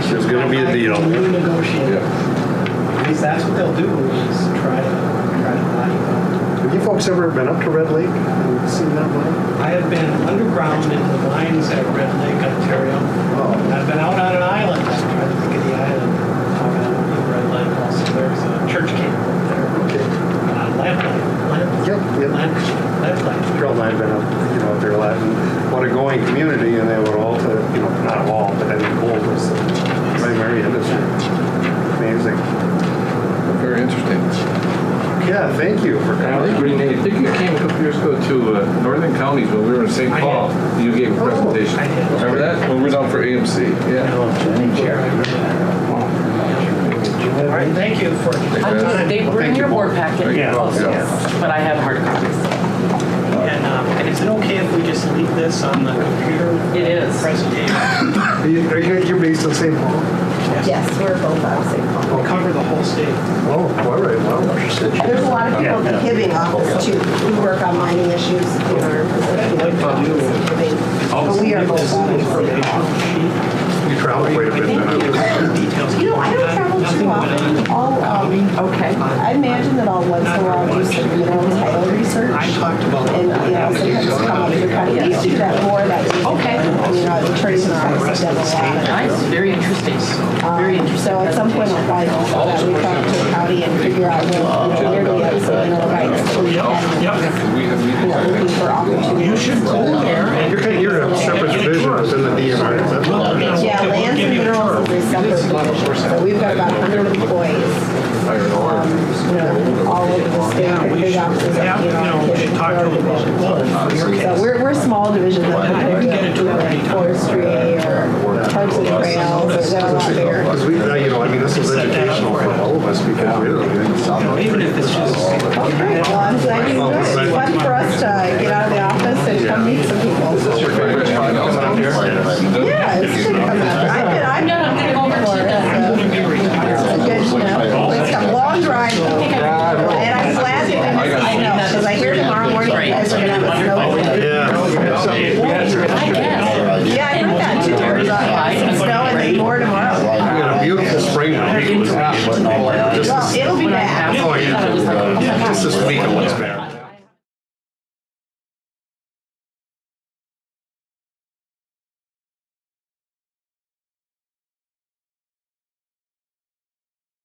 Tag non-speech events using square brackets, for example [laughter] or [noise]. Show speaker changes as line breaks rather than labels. gonna be a deal.
Renegotiate.
Yeah.
At least that's what they'll do, is try to, try to lie about it.
Have you folks ever been up to Red Lake and seen that mine?
I have been underground in the mines at Red Lake, Ontario.
Oh,
And I've been out on an island, I'm trying to think of the island. Out on Red Lake also, there's a church camp up there.
Okay.
Uh, Lamplight, Lamp-
Yep, yep.
Lamp- Lamplight.
Carol and I have been up, you know, up there a lot, and what a going community, and they would all, to, you know, not all, but I mean, gold was the primary industry. Amazing.
Very interesting.
Yeah, thank you for
I think
coming.
Renee, I think you came a couple years ago to uh, Northern Counties when we were in St.
I did.
Paul. You gave a
Oh,
presentation.
I did.
Remember that? When we were down for AMC. Yeah.
All right, thank you for your
I just-
time.
They were in
Thank you
your board
both.
packet,
Thank you.
also, but I have hard copies.
And um, and is it okay if we just leave this on the computer?
It is.
Presentation.
[coughs] Are you, are you- you're based in St. Paul?
Yes, we're both out of St. Paul.
We'll cover the whole state.
Oh, all right, wow.
There's a lot of people in the Hibbing office too. We work on mining issues in our, you know, Hibbing.
Oh,
But we are both out of St. Paul.
You travel quite a bit then.
You know, I don't travel too often. I'll, um,
Okay.
I imagine that I'll once in a while do some, you know, title research.
I talked about.
And, you know, sometimes it's come up with your kind of, used to do that more that.
Okay.
You know, attorneys and I have done a lot.
Nice, very interesting, very
Um,
interesting
So at some point, I'll
presentation.
probably just go out, reach out to the county and figure out where, you know, where do we have some mineral rights? So we can,
Yep.
We have
you
meetings.
know, looking for opportunities.
You should go there and.
You're, kind- you're a separate division within the DNR, is that right?
Yeah,
We'll
lands
give
and
you a
minerals is a separate division, so we've got about 100 employees,
Iron
um,
ore.
you know, all over the state, with big offices.
Yeah,
you know,
you know, we should talk to
in
them.
our division. So we're, we're a small division, but
I
we're,
didn't get into
you
it
know, like
many times.
forestry or parks and trails, or a lot bigger.
Because we, uh, you know, I mean, this is educational for all of us because we're,
You know, Even if it's just.
Great, well, I'm glad you enjoyed it. It's fun for us to get out of the office and come meet some people. Yeah, it's good to come out. I've been, I've
No,
done
I'm gonna go over to the-
it. Good to know. It's a long drive though. And I'm glad that I missed the snow, because I hear tomorrow morning you guys are gonna have a snow.
I guess.
Yeah, I heard that too. There's a lot of Snow and then more tomorrow.
we got a beautiful spring week. Just
Well,
this-
it'll be
When I
bad.
asked,
Oh, yeah.
I was like, oh my
just
God.
this week it was bad.